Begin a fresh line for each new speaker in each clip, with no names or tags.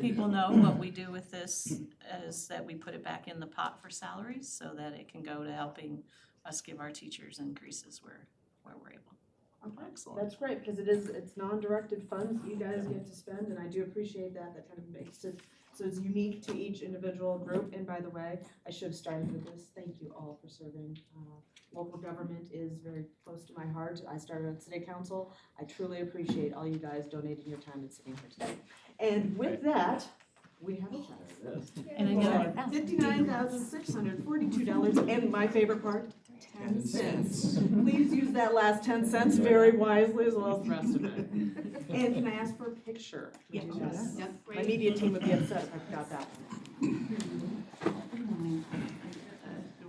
People know what we do with this is that we put it back in the pot for salaries so that it can go to helping us give our teachers increases where, where we're able.
Okay,
Excellent.
That's great, because it is, it's non-directed funds that you guys get to spend, and I do appreciate that, that kind of makes it, so it's unique to each individual group, and by the way, I should have started with this, thank you all for serving. Uh, Local government is very close to my heart, I started on city council, I truly appreciate all you guys donating your time and sitting here today. And with that, we have a tax.
And I know-
Fifty-nine thousand six hundred forty-two dollars, and my favorite part, ten cents. Please use that last ten cents very wisely as well as the rest of it. And can I ask for a picture? Would you do that?
Yes.
My media team would be upset if I forgot that one.
Do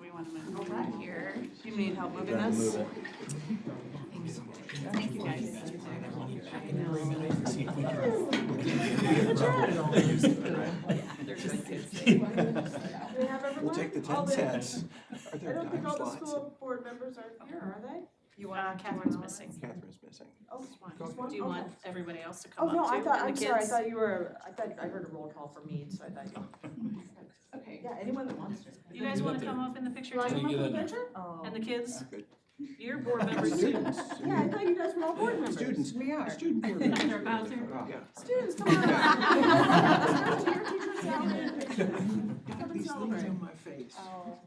we want to move over here? Do you need help moving this? Thank you guys. I know.
Do we have everyone?
We'll take the
All
ten cents. Are
I
there
don't think
dime
all the
slots?
school board members are here, are they?
You
Uh,
want
Catherine's missing.
Catherine's missing.
Oh,
Go.
just one?
Do you
Okay.
want everybody else to come
Oh,
up too?
no, I thought,
and
I'm
the
sorry, I
kids?
thought you were, I thought, I heard a roll call for me, so I thought, you-
Okay.
yeah, anyone that wants to.
You guys wanna come up in the picture
Do you want to
too?
come up with a picture?
And the kids,
Good.
your board members too.
Students.
Yeah, I thought you guys were all board members.
Students.
We are.
Student board members.
They're about to-
Yeah.
Students, come on up. Your teacher's salary picture.
Got these things on my face.
Oh.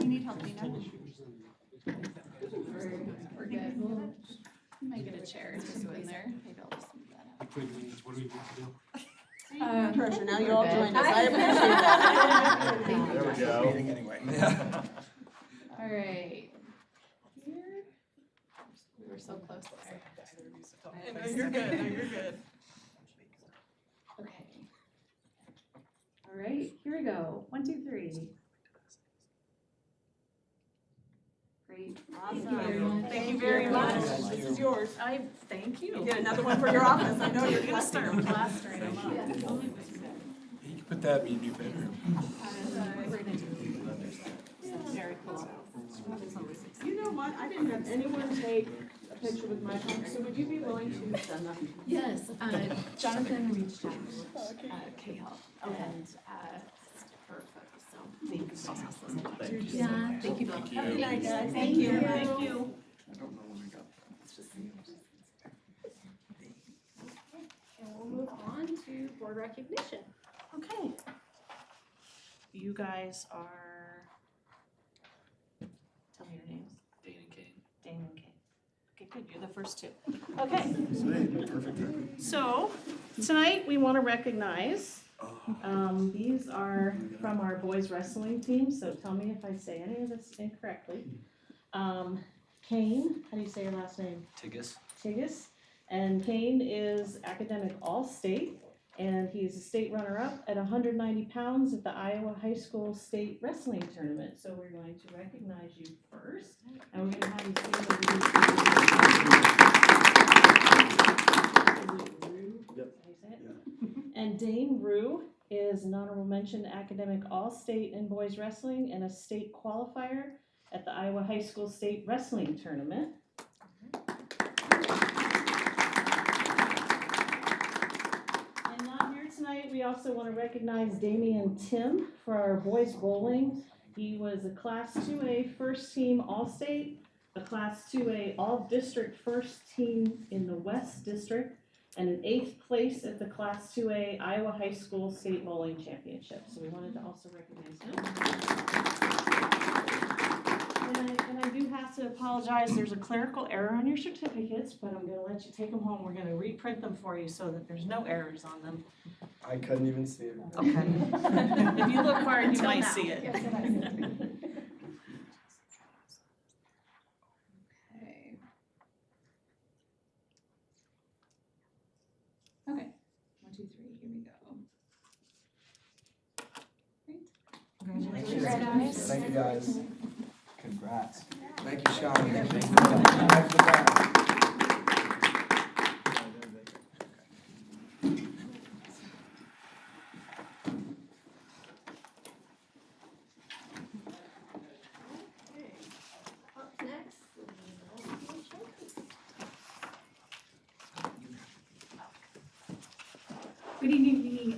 You need help, Nina? We're good. You might get a chair to go in there. Maybe I'll just move that
The quick means, what do we need to do?
up.
Pressure, now you all joined us, I
I-
appreciate that.
There we go. Meeting anyway. Yeah.
All right. Here. We were so close there.
No, you're good, no, you're good.
Okay. All right, here we go. One, two, three. Great.
Awesome.
Thank you very much.
This is yours.
I, thank you.
You get another one for your office, I know you're.
You're gonna start plastering them up.
You can put that in your new bedroom.
Very cool.
You know what, I didn't have anyone take a picture with my phone, so would you be willing to send that?
Yes, uh, Jonathan reached out to uh, K-Help and uh, asked for photos, so thank you. so much. Yeah, thank you both.
Have a good night, guys.
Thank you, thank you.
I don't know when we got.
And we'll move on to board recognition.
Okay. You guys are, tell me your names. Dane and Kane. Dane and Kane. Okay, good, you're the first two. Okay, so tonight we want to recognize, um, these are from our boys wrestling team, so tell me if I say any of this incorrectly. Um, Kane, how do you say your last name?
Tigas.
Tigas. And Kane is academic all-state, and he's a state runner-up at 190 pounds at the Iowa High School State Wrestling Tournament. So we're going to recognize you first, and we're going to have you say
Yep.
And Dane Rue is an honorable mention academic all-state in boys wrestling and a state qualifier at the Iowa High School State Wrestling Tournament. And not here tonight, we also want to recognize Damian Tim for our boys bowling. He was a Class 2A First Team All-State, a Class 2A All-District First Team in the West District, and an eighth place at the Class 2A Iowa High School State Bowling Championship. So we wanted to also recognize him. And I, and I do have to apologize, there's a clerical error on your certificates, but I'm gonna let you take them home. We're gonna reprint them for you so that there's no errors on them.
I couldn't even see it.
Okay.
If you look hard, you
Till
might
now.
see it.
Okay. Okay, one, two, three, here we go.
Congratulations.
Thank you, guys. Congrats. Thank you, Sean.
Up next, Lynn Olson.
Good evening,